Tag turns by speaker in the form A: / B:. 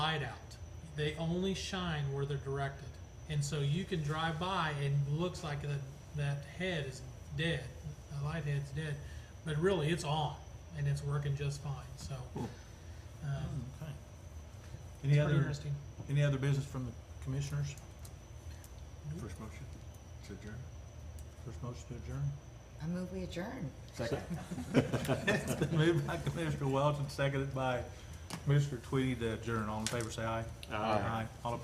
A: light out. They only shine where they're directed. And so you can drive by and it looks like that, that head is dead, the light head's dead, but really it's on and it's working just fine. So, um,
B: Okay.
A: it's
B: Any
A: pretty
B: other,
A: interesting.
B: any other business from the commissioners?
C: First motion to adjourn.
B: First motion to adjourn?
D: I move we adjourn.
C: Second.
B: It's been moved by Commissioner Welch and seconded by Commissioner Tweedy to adjourn. All in favor, say aye.
C: Aye.
B: All opposed,